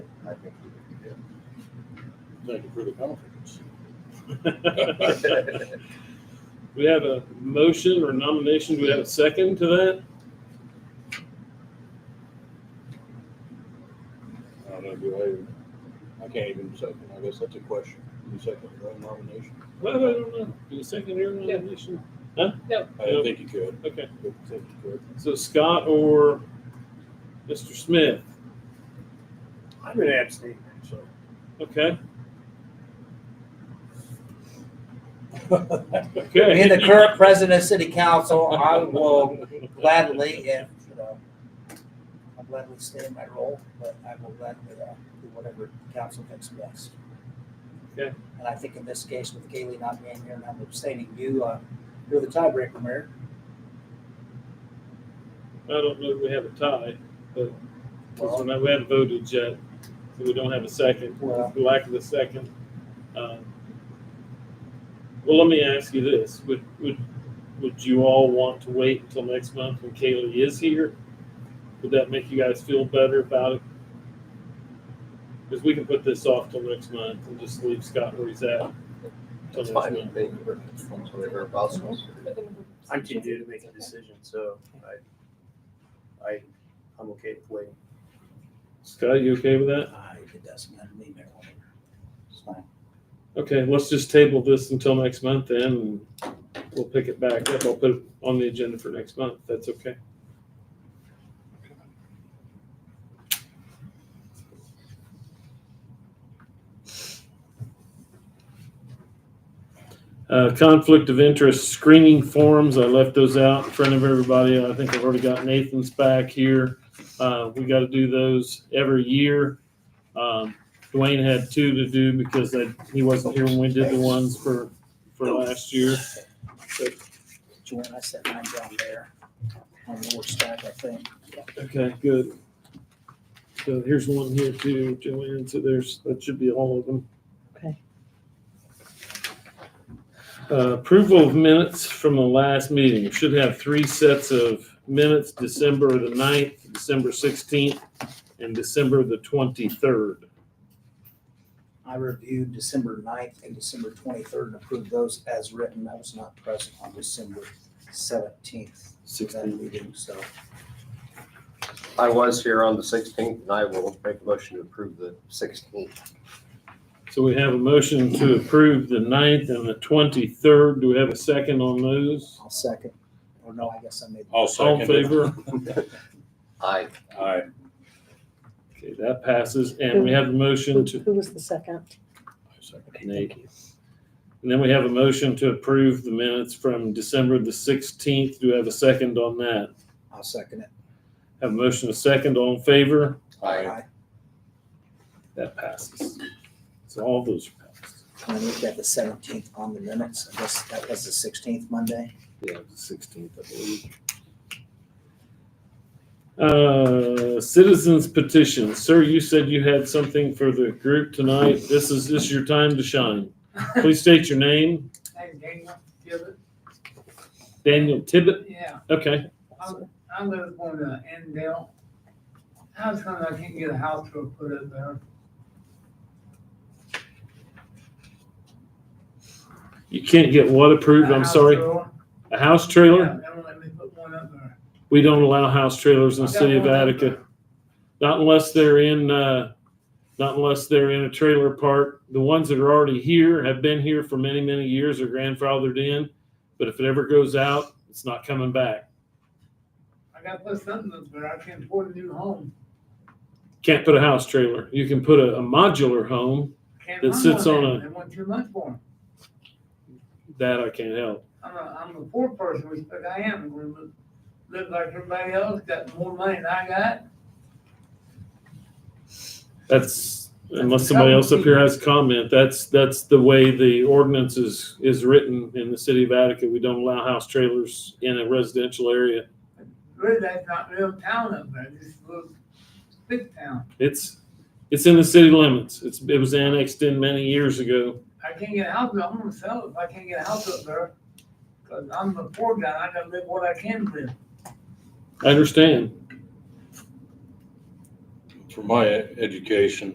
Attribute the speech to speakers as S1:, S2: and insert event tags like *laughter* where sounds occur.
S1: Thank you for the confidence.
S2: *laughs* We have a motion or nomination. Do we have a second to that?
S1: I don't know, do I, I can't even second, I guess that's a question. You second your own nomination?
S2: Well, I don't know. Can you second your nomination?
S1: I didn't think you could.
S2: Okay.
S1: Didn't think you could.
S2: So Scott or Mr. Smith?
S3: I'm an abstain, so.
S4: *laughs*
S2: Okay.
S4: Being the
S2: Okay.
S4: current president of city council, I will gladly, if, you know, I'll gladly stay in my role, but I will gladly uh, do whatever council thinks best.
S2: Okay.
S4: And I think in this case, with Kaylee not being here and I'm abstaining, you, uh, you're the tiebreaker, Mayor.
S2: I don't know if we have a tie, but because we're not- we haven't voted yet, so we don't have a second.
S4: Well-
S2: For lack of a second. um, Well, let me ask you this, would, would, would you all want to wait until next month when Kaylee is here? Would that make you guys feel better about it? Because we can put this off till next month and just leave Scott where he's at. till
S5: It's
S2: next
S5: fine,
S2: month.
S5: they, whatever possible.
S3: I'm too new to make a decision, so I, I, I'm okay with waiting.
S2: Scott, you okay with that?
S4: I, it doesn't matter to me, Mayor. It's fine.
S2: Okay, let's just table this until next month then, and we'll pick it back up. I'll put it on the agenda for next month. That's okay. Uh, conflict of interest screening forms, I left those out in front of everybody. I think I've already got Nathan's back here. Uh, we gotta do those every year. Um, Dwayne had two to do because they, he wasn't here when we did the ones for, for last year.
S4: Joanne, I set mine down there on the work stack, I think.
S2: Okay, good. So here's one here too, Joanne, so there's, that should be all of them.
S6: Okay.
S2: Uh, Approval of minutes from the last meeting. Should have three sets of minutes, December the 9th, December 16th, and December the 23rd.
S4: I reviewed December 9th and December twenty-third and approved those as written. I was not present on December seventeenth. That
S2: 16th.
S4: meeting, so
S5: I was here on the sixteenth, and I will make a motion to approve the sixteenth.
S2: So we have a motion to approve the 9th and the 23rd. Do we have a second on those?
S4: I'll second. Or no, I guess I made.
S1: I'll
S2: All
S1: second
S2: in
S1: it.
S2: favor?
S5: I,
S1: Aye.
S2: Okay, that passes, and we have a motion to,
S6: Who was the second?
S1: I second.
S2: Nate. And then we have a motion to approve the minutes from December the sixteenth. Do we have a second on that?
S4: I'll second it.
S2: Have a motion, a second, all in favor?
S5: I,
S2: That passes. So all those are passed.
S4: I looked at the seventeenth on the minutes. I guess that was the sixteenth Monday.
S2: Yeah, the sixteenth, I believe. Uh, citizens petition. Sir, you said you had something for the group tonight. This is, this is your time to
S7: *laughs*
S2: shine. Please state your name.
S7: Hey, Daniel, Gilbert,
S2: Daniel Tibbet.
S7: yeah,
S2: Okay.
S7: I live on uh Endale. How's come I can't get a house to put up there?
S2: You can't get what approved?
S7: A
S2: I'm
S7: house
S2: sorry.
S7: trailer?
S2: A house
S7: Yeah,
S2: trailer?
S7: they won't let me put one up there.
S2: We don't allow house trailers in the
S7: Got
S2: city of
S7: one up
S2: Attica.
S7: there.
S2: Not unless they're in, uh, not unless they're in a trailer park. The ones that are already here have been here for many, many years are grandfathered in. But if it ever goes out, it's not coming back.
S7: I gotta put something up there, I can't afford a new home.
S2: Can't put a house trailer. You can put a, a modular home.
S7: Can't
S2: That
S7: run
S2: sits on
S7: that.
S2: a-
S7: They want too much for 'em.
S2: That I can't help.
S7: I'm a, I'm a poor person, which but I am, I'm gonna live- live like everybody else, got more money than I got.
S2: That's, unless somebody else up here has a comment, that's, that's the way the ordinance is, is written in the city of Attica. We don't allow house trailers in a residential area.
S7: Really, that's not real town up there, this is a little big town.
S2: It's, it's in the city limits. It's, it was annexed in many years ago.
S7: I can't get a house, I'm gonna sell it if I can't get a house up there. Cause I'm a poor guy, I gotta live what I can live.
S2: I understand.
S1: For my education,